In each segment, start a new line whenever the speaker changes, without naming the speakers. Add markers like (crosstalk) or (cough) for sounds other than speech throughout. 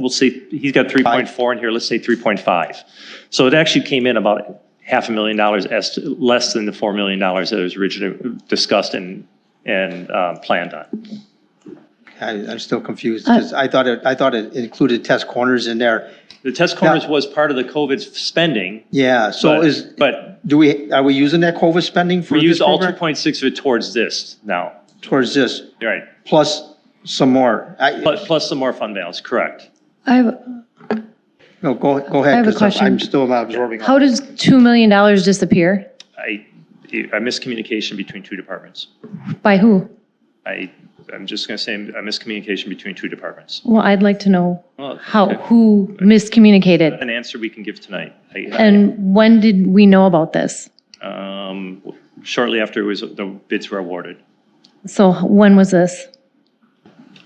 we'll say, he's got 3.4 in here, let's say 3.5. So it actually came in about half a million dollars, est- less than the $4 million that was originally discussed and, and uh, planned on.
I, I'm still confused,
Uh,
because I thought it, I thought it included test corners in there.
The test corners was part of the COVID spending,
Yeah, so is,
but, but
do we, are we using that COVID spending for
we
this
used all
program?
2.6 of it towards this now,
Towards this,
right?
plus some more. I,
Plus, plus some more fund balance, correct.
I have,
no, go, go
I
ahead,
have a
because I'm
question.
still not absorbing. all-
how does $2 million disappear?
I, a miscommunication between two departments.
By who?
I, I'm just going to say a miscommunication between two departments.
Well, I'd like to know
Well,
how,
okay.
who miscommunicated?
An answer we can give tonight. I-
And when did we know about this?
um, shortly after it was, the bids were awarded.
So when was this?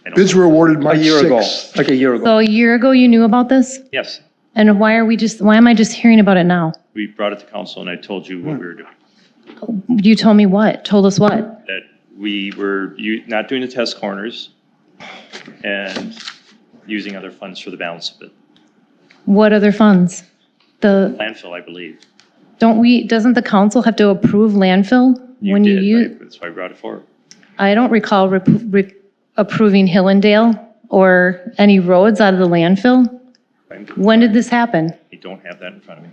I don't-
Bids were awarded
A
March
year ago,
6th.
like a year ago.
So a year ago you knew about this?
Yes,
And why are we just, why am I just hearing about it now?
we brought it to council and I told you what we were doing.
You told me what? Told us what?
That we were u- not doing the test corners and using other funds for the balance of it.
What other funds? The,
Landfill, I believe.
don't we, doesn't the council have to approve landfill?
You
when
did,
use?
right? That's why I brought it forward.
I don't recall rep- re- approving Hillendale or any roads out of the landfill.
I'm-
When did this happen?
I don't have that in front of me.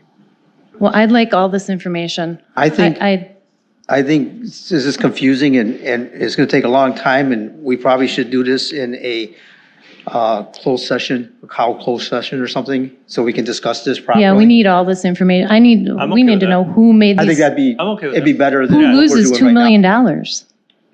Well, I'd like all this information.
I think.
I, I,
I think this is confusing and, and it's going to take a long time, and we probably should do this in a uh, closed session, a cow closed session or something, so we can discuss this properly.
yeah, we need all this information. I need,
I'm
we
okay
need
with
to
that.
know who made
I think
these,
that'd be,
I'm okay with
it'd be
that.
better than.
who
what we're
loses
doing
$2
right now.
million? dollars?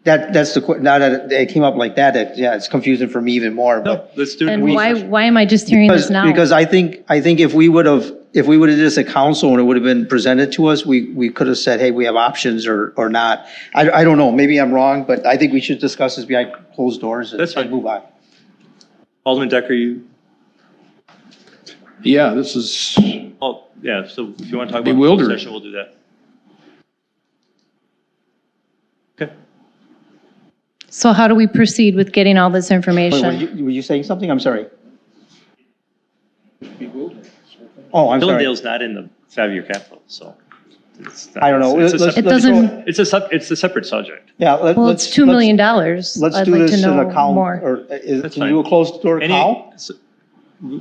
That, that's the, que- now that it came up like that, that, yeah, it's confusing for me even more, but.
Let's do it.
And why, why am I just hearing this
Because,
now?
because I think, I think if we would have, if we would have did this at council and it would have been presented to us, we, we could have said, hey, we have options or, or not. I, I don't know, maybe I'm wrong, but I think we should discuss this behind closed doors and
That's fine.
and move on.
Alderman Decker, you,
Yeah, this is,
oh, yeah, so if you want to talk about. the closed
Bewildered.
session, We'll do that. Okay.
So how do we proceed with getting all this
Wait, were
information?
you, were you saying something? I'm sorry. Oh, I'm sorry.
Hillendale's not in the five-year capital, so. it's not-
I don't know.
It's a
Let's-
separate-
It
let's go-
doesn't-
It's a, sep- it's a separate subject.
Yeah, let- let's.
Well, it's $2 million. dollars.
Let's
I'd
do
like to
this in
know
a count,
more.
or is,
That's
can you do a
fine.
closed door
Any-
count?
s-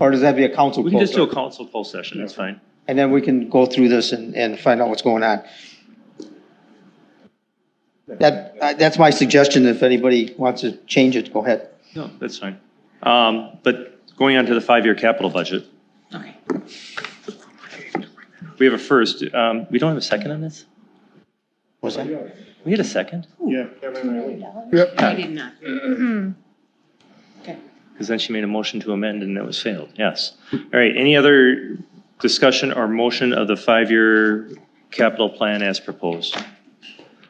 Or does that be a council
We can just
closed
do a
door?
council poll session, that's fine.
And then we can go through this and, and find out what's going on. That, uh, that's my suggestion. If anybody wants to change it, go ahead.
No, that's fine. Um, But going on to the five-year capital budget. We have a first, um, we don't have a second on this?
Was that?
We had a second?
yep,
I did not.
Mm-hmm.
Because then she made a motion to amend and that was failed, yes. All right, any other discussion or motion of the five-year capital plan as proposed?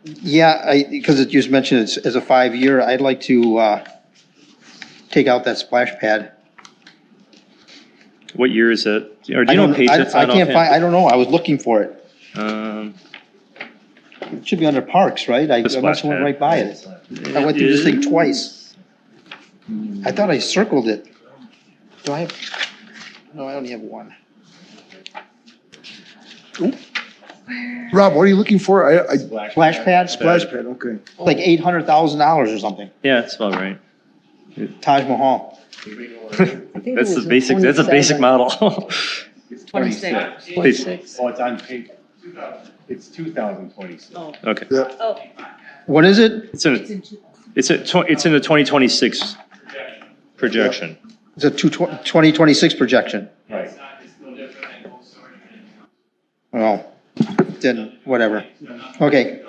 Yeah, I, because it, you just mentioned it's, as a five-year, I'd like to, uh, take out that splash pad.
What year is it? Or do
I
you know
don't,
what page
I,
it's
I
on Um,
can't find, I don't know, I was looking for it.
can't
It should be under parks, right?
The
I I must have
splash
went
pad.
right by it. I went through this thing twice. I thought I circled it. Do I have, no, I only have one.
Rob, what are you looking for? I, I,
Splash pad?
splash pad, okay.
Like eight hundred thousand dollars or something,
Yeah, that's about right.
Taj Mahal.
That's the basic, that's a basic model. (laughs)
Twenty-six.
Well, Oh, it's on paper. It's 2026.
Okay.
Yeah,
Oh,
What is it?
It's in,
it's in two.
it's a, tw- it's in the 2026 projection.
It's a two, twenty twenty-six projection.
Right.
Oh, then, whatever. Okay.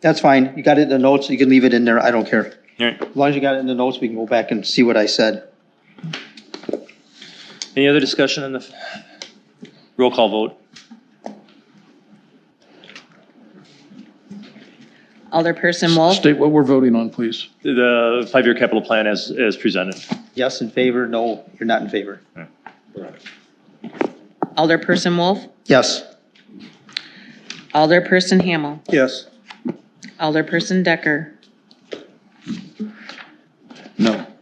That's fine. You got it in the notes. You can leave it in there. I don't care.
All right.
As long as you got it in the notes, we can go back and see what I said.
Any other discussion on the f- roll call vote?
Alderperson Wolf,
State what we're voting on, please.
The five-year capital plan as, as presented.
Yes in favor, no, you're not in favor.
Alderperson Wolf,
Yes.
Alderperson Hamel,
Yes.
Alderperson Decker,
No.